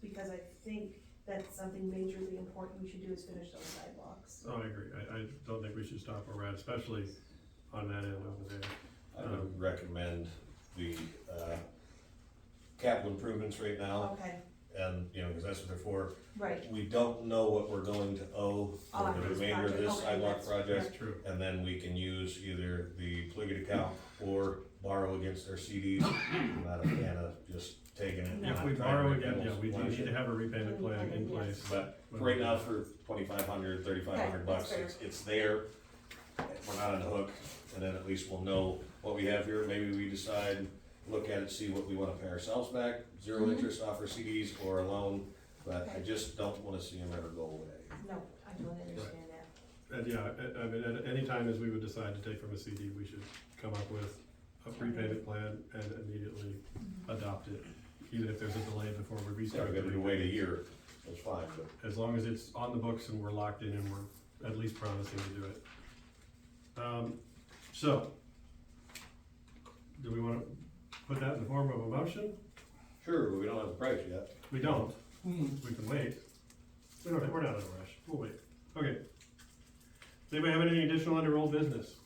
because I think that's something majorly important we should do is finish those sidewalks. Oh, I agree, I, I don't think we should stop where we're at, especially on that end over there. I would recommend the, uh, capital improvements right Oh. now, Okay, and, you know, because that's what they're for. right, We don't know what we're going to owe for Oh, the this remainder of this project, okay, sidewalk that's- project, That's true. and then we can use either the Pliget account or borrow against our CDs. I'm not a fan of just taking it. Yeah, If we Trying to borrow make again, yeah, almost we do one need shit. to have a repayment plan in place. But for right now, for twenty-five hundred, thirty-five Right, hundred bucks, that's it's, it's there. We're not on the hook, and then at least we'll know what we have here, maybe we decide, look at it, see what we wanna pay ourselves back, zero Mhm. interest off our CDs or a loan, but I just don't wanna see them ever go away. no, I don't understand that. And uh, yeah, I, I mean, at any time as we would decide to take from a CD, we should come up with a prepayment plan and immediately adopt it. Even if there's a delay before we Yeah, restart. we're gonna the wait a year, that's fine, but As long as it's on the books and we're locked in and we're at least promising to do it. Um, so, do we wanna put that in the form of a motion? sure, we don't have the price yet. We don't, Hmm. we can wait. We don't, we're not in a rush, we'll wait. Okay. Does anybody have anything additional under old business?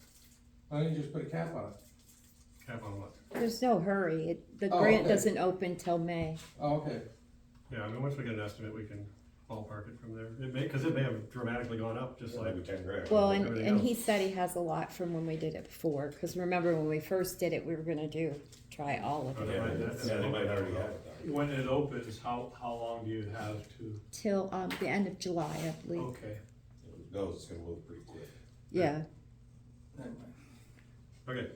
Why don't you just put a cap on it? Cap on what? There's no hurry. It, the Oh, grant okay. doesn't open till May. Oh, okay. Yeah, I mean, once we get an estimate, we can ballpark it from there. It may, cause it may have dramatically gone up, just It's like, like ten grand. Well, and, Everything and he said he has a lot from when we did it before, because remember when we first did it, we were gonna do, try all of Oh, it. Yeah, that's- yeah, they might already have it. though. When it opens, how, how long do you have to, Till, um, the end of July, I believe. okay. If it Goes, it's gonna move pretty quick. Yeah. Never mind. okay.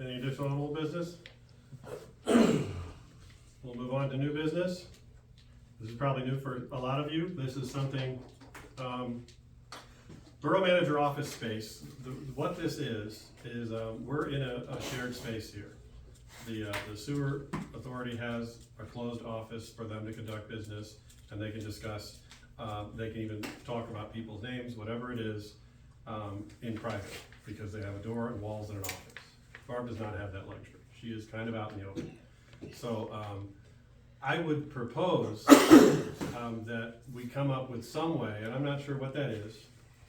Any additional on old business? We'll move on to new business. This is probably new for a lot of you. This is something, um, Borough Manager Office Space, the, what this is, is, um, we're in a, a shared space here. The, uh, the sewer authority has a closed office for them to conduct business, and they can discuss, uh, they can even talk about people's names, whatever it is, um, in private, because they have a door and walls and an office. Barb does not have that luxury. She is kind of out in the open. So, um, I would propose um, that we come up with some way, and I'm not sure what that is,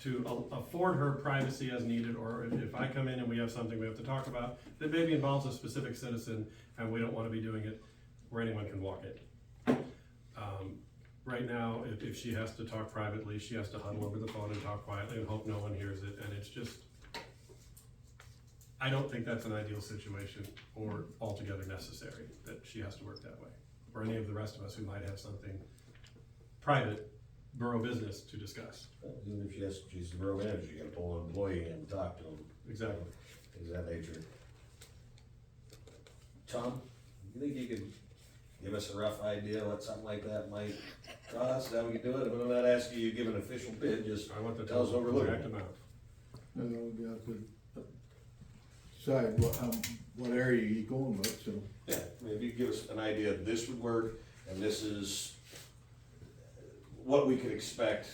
to a- afford her privacy as needed, or if- if I come in and we have something we have to talk about, that maybe involves a specific citizen, and we don't wanna be doing it where anyone can walk in. Um, Right now, if, if she has to talk privately, she has to huddle over the phone and talk quietly and hope no one hears it, and it's just, I don't think that's an ideal situation or altogether necessary, that she has to work that way. Or any of the rest of us who might have something private borough business to discuss. Even if yes, she's the borough manager, you gotta pull an employee in and talk to them. Exactly. Is that nature? Tom, you think you could give us a rough idea what something like that might cost, how we could do it? I'm not asking you to give an official bid, just, I want the That was total overlooked. correct amount. And then we have to decide what, um, what area you going with, so. yeah, maybe give us an idea, this would work, and this is what we could expect,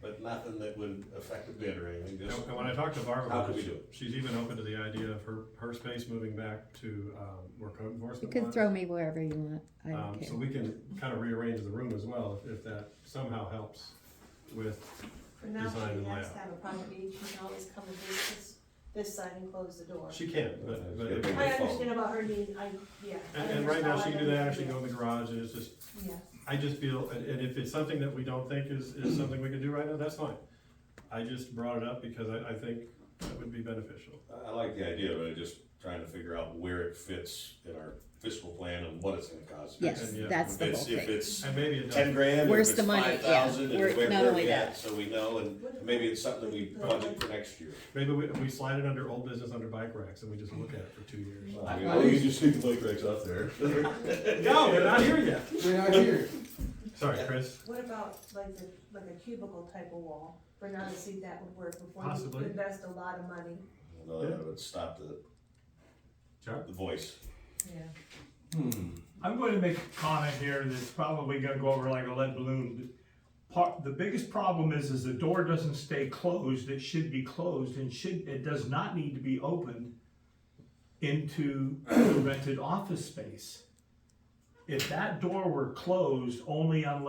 but nothing that would affect the bid or anything, And just. and when I talked to Barb How about could we it, do it? she's even open to the idea of her, her space moving back to, um, where code You enforcement can was. throw me wherever you want. I Um, don't so care. we can kind of rearrange the room as well, if, if that somehow helps with, For now, Design and she has layout. to have a private meeting, she can always come and visit this, this side and close the door. she can, uh, but, but. if- I understand about her needing, I, yeah. I And, and right now, she can do that, or she understand. can go in the garage, and it's just, Yeah, I just feel, and, and if it's something that we don't think is, is something we can do right now, that's fine. I just brought it up because I, I think that would be beneficial. I- I like the idea, but I'm just trying to figure out where it fits in our fiscal plan and what it's gonna cost. Yes, yeah. that's If the whole it's, if thing. it's And maybe it ten does, grand, or if Where's it's the money? five thousand, Yeah, and where- where not where only we that. at, so we know, and maybe it's something we budget for next year. maybe we, we slide it under old business under bike racks and we just look at it for two years. Well, I mean, well, you just leave the bike racks up there. No, they're not here yet. We're not here. Sorry, Chris. what about like the, like a cubicle type of wall, Bernard, see if that would work before you Possibly. invest a lot of money. No, that would stop the, Chuck? the voice. Yeah. I'm going to make a comment here that's probably gonna go over like a lead balloon. Part, the biggest problem is, is the door doesn't stay closed, it should be closed and should, it does not need to be opened into the rented office space. If that door were closed only unless